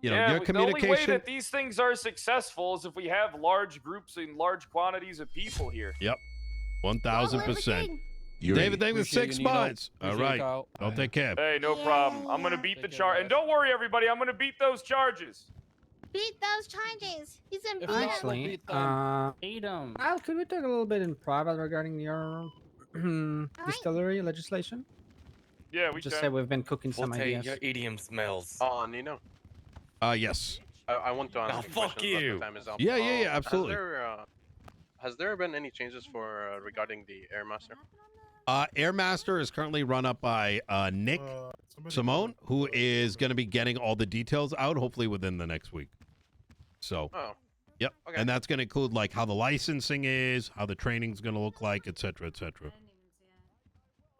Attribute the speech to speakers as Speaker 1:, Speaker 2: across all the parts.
Speaker 1: You know,
Speaker 2: yeah,
Speaker 1: your
Speaker 2: we- the only way
Speaker 1: communication.
Speaker 2: that these things are successful is if we have large groups and large quantities of people here.
Speaker 1: One thousand percent.
Speaker 3: You're
Speaker 1: David,
Speaker 3: in.
Speaker 1: thank you for
Speaker 4: Appreciate
Speaker 1: six
Speaker 4: you, Nino.
Speaker 1: spots. All
Speaker 4: Appreciate it,
Speaker 1: right.
Speaker 4: Kyle.
Speaker 1: I'll take care.
Speaker 2: Hey, no
Speaker 5: Yeah,
Speaker 2: problem. I'm gonna
Speaker 5: yeah.
Speaker 2: beat the
Speaker 4: Take care,
Speaker 2: charge, and
Speaker 4: guys.
Speaker 2: don't worry, everybody. I'm gonna beat those charges.
Speaker 5: Beat those charges. He's in beat
Speaker 4: If not, we'll
Speaker 6: Actually,
Speaker 4: beat them.
Speaker 6: uh, Al, could we talk a little bit in private regarding your distillery legislation?
Speaker 2: Yeah, we
Speaker 6: Just
Speaker 2: can.
Speaker 6: said we've been cooking some
Speaker 7: Forte,
Speaker 6: ideas.
Speaker 7: your idiom smells.
Speaker 8: Oh, Nino,
Speaker 1: Uh, yes.
Speaker 8: I, I want to ask. a
Speaker 7: Oh, fuck
Speaker 8: question, but the
Speaker 7: you.
Speaker 8: time is up.
Speaker 1: Yeah, yeah, yeah,
Speaker 8: has
Speaker 1: absolutely.
Speaker 8: there, uh, has there been any changes for uh, regarding the Air Master?
Speaker 1: Uh, Airmaster is currently run up by uh, Nick Simone, who is going to be getting all the details out hopefully within the next week. So,
Speaker 8: Oh,
Speaker 1: yep.
Speaker 8: Okay.
Speaker 1: And that's going to include like how the licensing is, how the training's going to look like, et cetera, et cetera.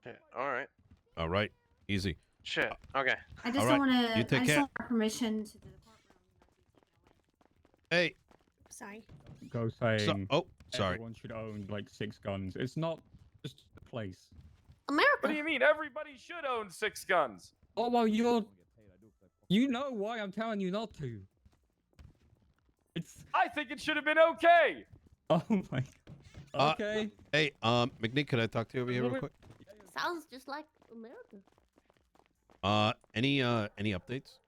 Speaker 8: shit. All right.
Speaker 1: All right. Easy.
Speaker 8: Shit. Okay.
Speaker 9: I just
Speaker 1: Alright,
Speaker 9: don't want
Speaker 1: you
Speaker 9: to.
Speaker 1: take
Speaker 9: I just
Speaker 1: care.
Speaker 9: don't want permission to the
Speaker 1: Hey.
Speaker 5: Sorry.
Speaker 10: go saying
Speaker 1: So, oh, sorry.
Speaker 10: everyone should own like six guns. It's not just the place.
Speaker 2: What do
Speaker 5: America.
Speaker 2: you mean? Everybody should own six guns.
Speaker 10: Oh well, you're. You know why I'm telling you not to. It's
Speaker 2: I think it should have been okay.
Speaker 10: oh my.
Speaker 1: Uh,
Speaker 10: Okay.
Speaker 1: Hey, um, McNeek, could I talk to you over here real quick?
Speaker 5: Sounds just like America.
Speaker 1: Uh, any uh, any updates?